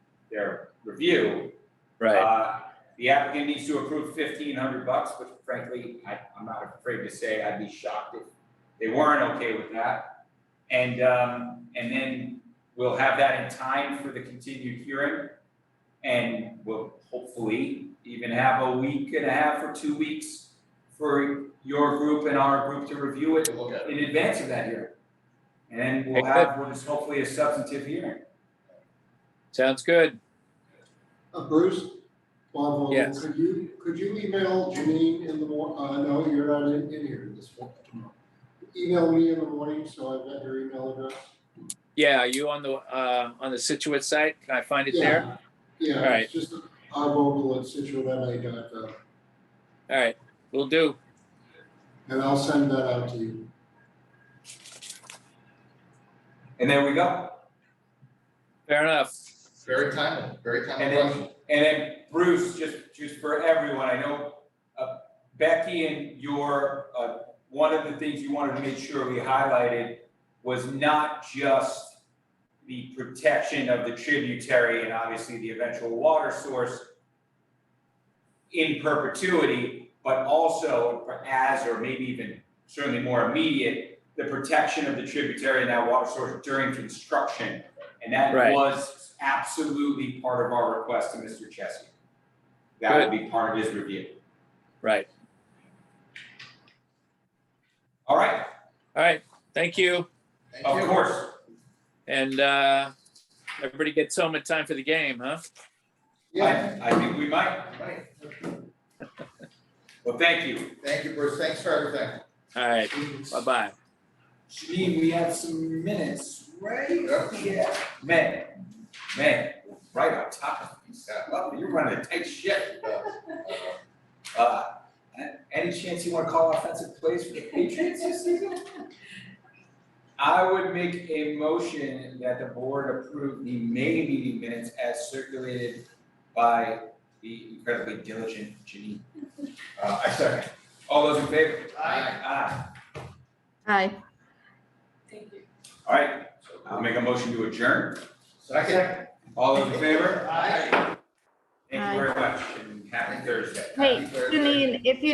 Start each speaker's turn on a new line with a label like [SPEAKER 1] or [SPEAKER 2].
[SPEAKER 1] their review.
[SPEAKER 2] Right,
[SPEAKER 1] Uh, The applicant needs to approve fifteen hundred bucks, which frankly, I, I'm not afraid to say, I'd be shocked if they weren't okay with that. And, um, and then we'll have that in time for the continued hearing. And we'll hopefully even have a week and a half or two weeks for your group and our group to review it
[SPEAKER 3] Look at
[SPEAKER 1] in advance of that hearing. And then we'll
[SPEAKER 2] Okay,
[SPEAKER 1] have what is hopefully a substantive hearing.
[SPEAKER 2] sounds good.
[SPEAKER 4] Uh, Bruce, Bob Vogel,
[SPEAKER 2] Yes.
[SPEAKER 4] could you, could you email Janine in the mor, uh, no, you're not in, in here this morning, tomorrow. Email me in the morning, so I've got your email address.
[SPEAKER 2] Yeah, are you on the, uh, on the Situate site? Can I find it there?
[SPEAKER 4] Yeah,
[SPEAKER 2] All
[SPEAKER 4] Yeah,
[SPEAKER 2] right.
[SPEAKER 4] it's just ivogel@situatema.gov,
[SPEAKER 2] All right, will do.
[SPEAKER 4] and I'll send that out to you.
[SPEAKER 1] And there we go.
[SPEAKER 2] Fair enough.
[SPEAKER 3] it. Very timely, very timely
[SPEAKER 1] And then-
[SPEAKER 3] question.
[SPEAKER 1] And then Bruce, just, just for everyone, I know uh, Becky and your, uh, one of the things you wanted to make sure we highlighted was not just the protection of the tributary and obviously the eventual water source in perpetuity, but also as, or maybe even certainly more immediate, the protection of the tributary and that water source during construction. And that
[SPEAKER 2] Right.
[SPEAKER 1] was absolutely part of our request to Mr. Chesky. That would be part of his review.
[SPEAKER 2] Right,
[SPEAKER 1] All right,
[SPEAKER 2] all right, thank you.
[SPEAKER 3] Thank
[SPEAKER 1] of
[SPEAKER 3] you.
[SPEAKER 1] course.
[SPEAKER 2] And, uh, everybody gets home in time for the game, huh?
[SPEAKER 4] Yeah,
[SPEAKER 1] I, I think we might.
[SPEAKER 3] Right.
[SPEAKER 1] Well, thank you.
[SPEAKER 3] Thank you, Bruce. Thanks for everything.
[SPEAKER 2] All right, bye-bye.
[SPEAKER 1] Janine, we have some minutes, right?
[SPEAKER 3] Yep.
[SPEAKER 1] Yeah. Man, man, right on top of things. Well, you're running a tight ship.
[SPEAKER 3] Uh,
[SPEAKER 1] Uh, a- any chance you wanna call offensive plays for the Patriots this season? I would make a motion that the board approve the May meeting minutes as circulated by the incredibly diligent Janine.
[SPEAKER 3] Uh, I second.
[SPEAKER 1] All those in favor?
[SPEAKER 3] Aye.
[SPEAKER 1] Aye.
[SPEAKER 5] Aye.
[SPEAKER 6] Thank you.
[SPEAKER 1] All right, I'll make a motion to adjourn.
[SPEAKER 3] Second.
[SPEAKER 1] All those in favor?
[SPEAKER 3] Aye.
[SPEAKER 1] Thank you very much and happy Thursday.
[SPEAKER 5] Hey,
[SPEAKER 3] Happy Thursday.
[SPEAKER 5] Janine, if you